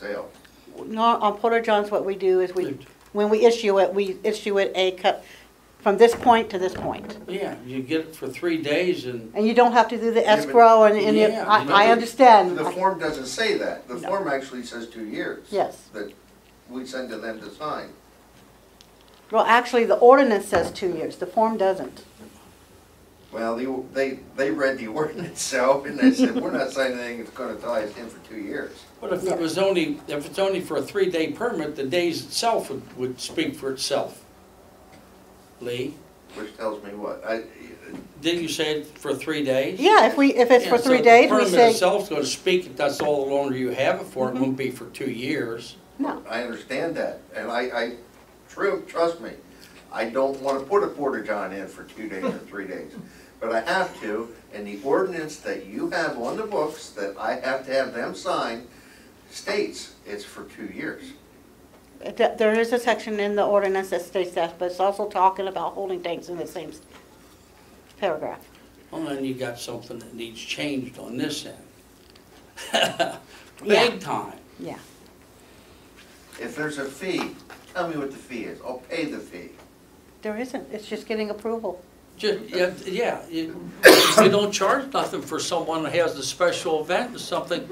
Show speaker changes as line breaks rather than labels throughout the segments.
sale.
No, on Porter Johns, what we do is we, when we issue it, we issue it a cup from this point to this point.
Yeah, you get it for three days and,
And you don't have to do the
Yeah, but-
escrow and, and it-
Yeah,
I,
but
I
the-
understand.
The form doesn't say that. The
No.
form actually says two years.
Yes.
That we send to them to sign.
Well, actually, the ordinance says two years, the form doesn't.
Well, they, they, they read the ordinance itself and they said, we're not signing anything that's gonna tie us in for two years.
but if it was only, if it's only for a three-day permit, the days itself would, would speak for itself. Lee,
Which tells me what? I,
didn't you say it for three days?
Yeah, if we, if it's for
Yeah, so
three
the
days, we
Permit
say, Mm-hmm.
itself's gonna speak, if that's all the longer you have it for, it won't be for two years.
no,
I understand that. And I, I, true, trust me, I don't wanna put a porta john in for two days or three days. But I have to, and the ordinance that you have on the books that I have to have them sign states it's for two years.
Th- there is a section in the ordinance that states that, but it's also talking about holding tanks in the same s- paragraph.
Well, then you got something that needs changed on this end.
Yeah.
Big time.
Yeah,
If there's a fee, tell me what the fee is. I'll pay the fee.
there isn't, it's just getting approval.
Ju- yeah, yeah, you, you don't charge nothing for someone who has a special event or something.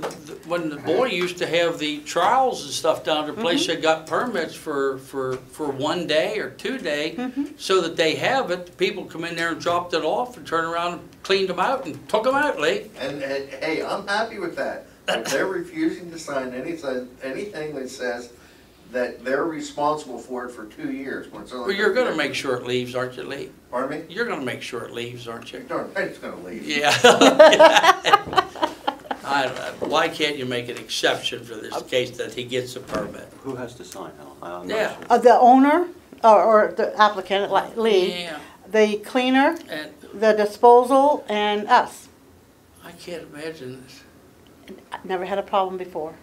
Th- th- When the boy used to have the trials and stuff down at the place, they got permits for, for, for one day or two day, so that they have it, the people come in there and dropped it off and turned around and cleaned them out and took them out, Lee.
And, and, hey, I'm happy with that. If they're refusing to sign anything, anything that says that they're responsible for it for two years, when it's only.
Well, you're gonna make sure it leaves, aren't you, Lee?
Pardon me?
You're gonna make sure it leaves, aren't you?
Darn right, it's gonna leave.
Yeah. I don't know. Why can't you make an exception for this case that he gets a permit?
Who has to sign, Al? I- I'm not
Yeah.
sure.
Uh, the owner, or, or the applicant, like Lee,
Yeah,
the cleaner,
and
the disposal, and us.
I can't imagine this.
I've Never had a problem before.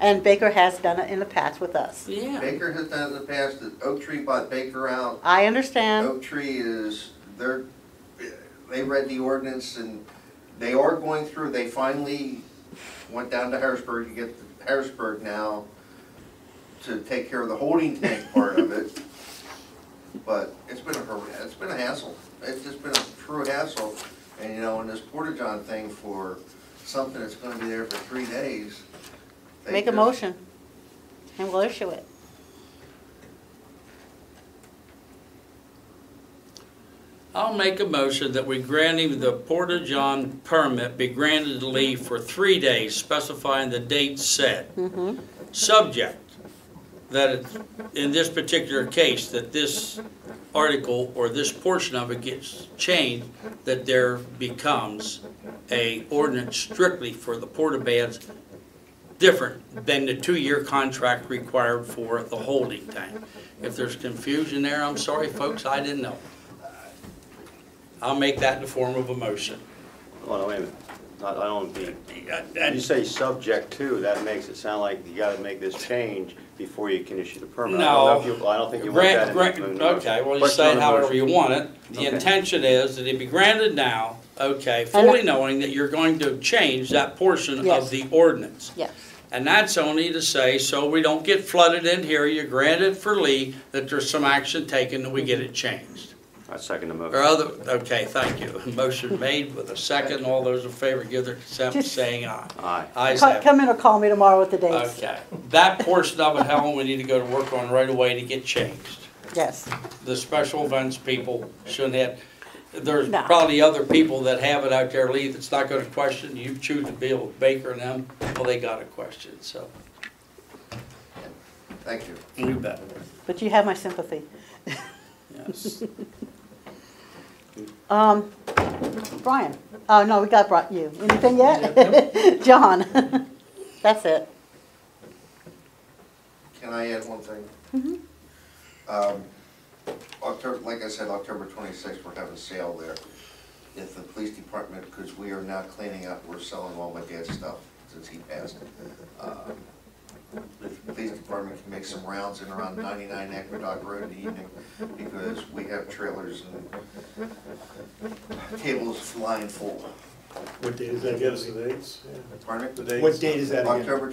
And Baker has done it in the past with us.
Yeah,
Baker has done it in the past, the Oak Tree bought Baker out.
I understand,
Oak Tree is, they're, they read the ordinance and they are going through, they finally went down to Harrisburg to get the- Harrisburg now to take care of the holding tank part of it. But it's been a, har- it's been a hassle. It's just been a true hassle. And you know, in this porta-john thing for something that's gonna be there for three days. they
make a
just-
motion, and we'll issue it.
I'll make a motion that we grant him the Porta John permit be granted to Lee for three days specifying the date set.
Mm-hmm.
Subject, that it, in this particular case, that this article or this portion of it gets changed, that there becomes a ordinance strictly for the porta bands different than the two-year contract required for the holding tank. If there's confusion there, I'm sorry, folks, I didn't know. I'll make that in the form of a motion.
Hold on, wait a minute. I I don't be, you
And-
say subject to, that makes it sound like you gotta make this change before you can issue the permit. I don't know if you- I don't think you want that.
Grant, grant,
in the- in the motion.
okay, well, you
But
say
not
it
a
however
motion.
you want it. The
Okay.
intention is that it be granted now, okay, fully knowing that you're going to change that portion
Yes.
of the ordinance.
Yes.
And that's only to say, so we don't get flooded in here, you grant it for Lee, that there's some action taken, that we get it changed.
I second the
Or
motion.
other, okay, thank you. Motion made with a second, all those in favor give their consent by saying aye.
Aye.
Ayes have
Co-
it.
Come in or call me tomorrow with the dates.
Okay, that portion of it, Helen, we need to go to work on right away to get changed.
Yes,
the special events people shouldn't have, there's
No.
probably other people that have it out there, Lee, that's not gonna question, you choose to deal with Baker and them, well, they got a question, so.
Thank you.
You bet.
but you have my sympathy.
Yes.
Um, Brian, oh, no, we got brought you. Anything yet? John, that's it.
Can I add one thing? Um, October, like I said, October twenty-sixth, we're having a sale there. If the police department, because we are now cleaning up, we're selling all my dad's stuff since he passed. Um, If the police department can make some rounds in around ninety-nine Aqueduct Road in the evening, because we have trailers and tables flying full.
What date is that?
Give us the dates.
Pardon me?
The dates.
What date is that again?
October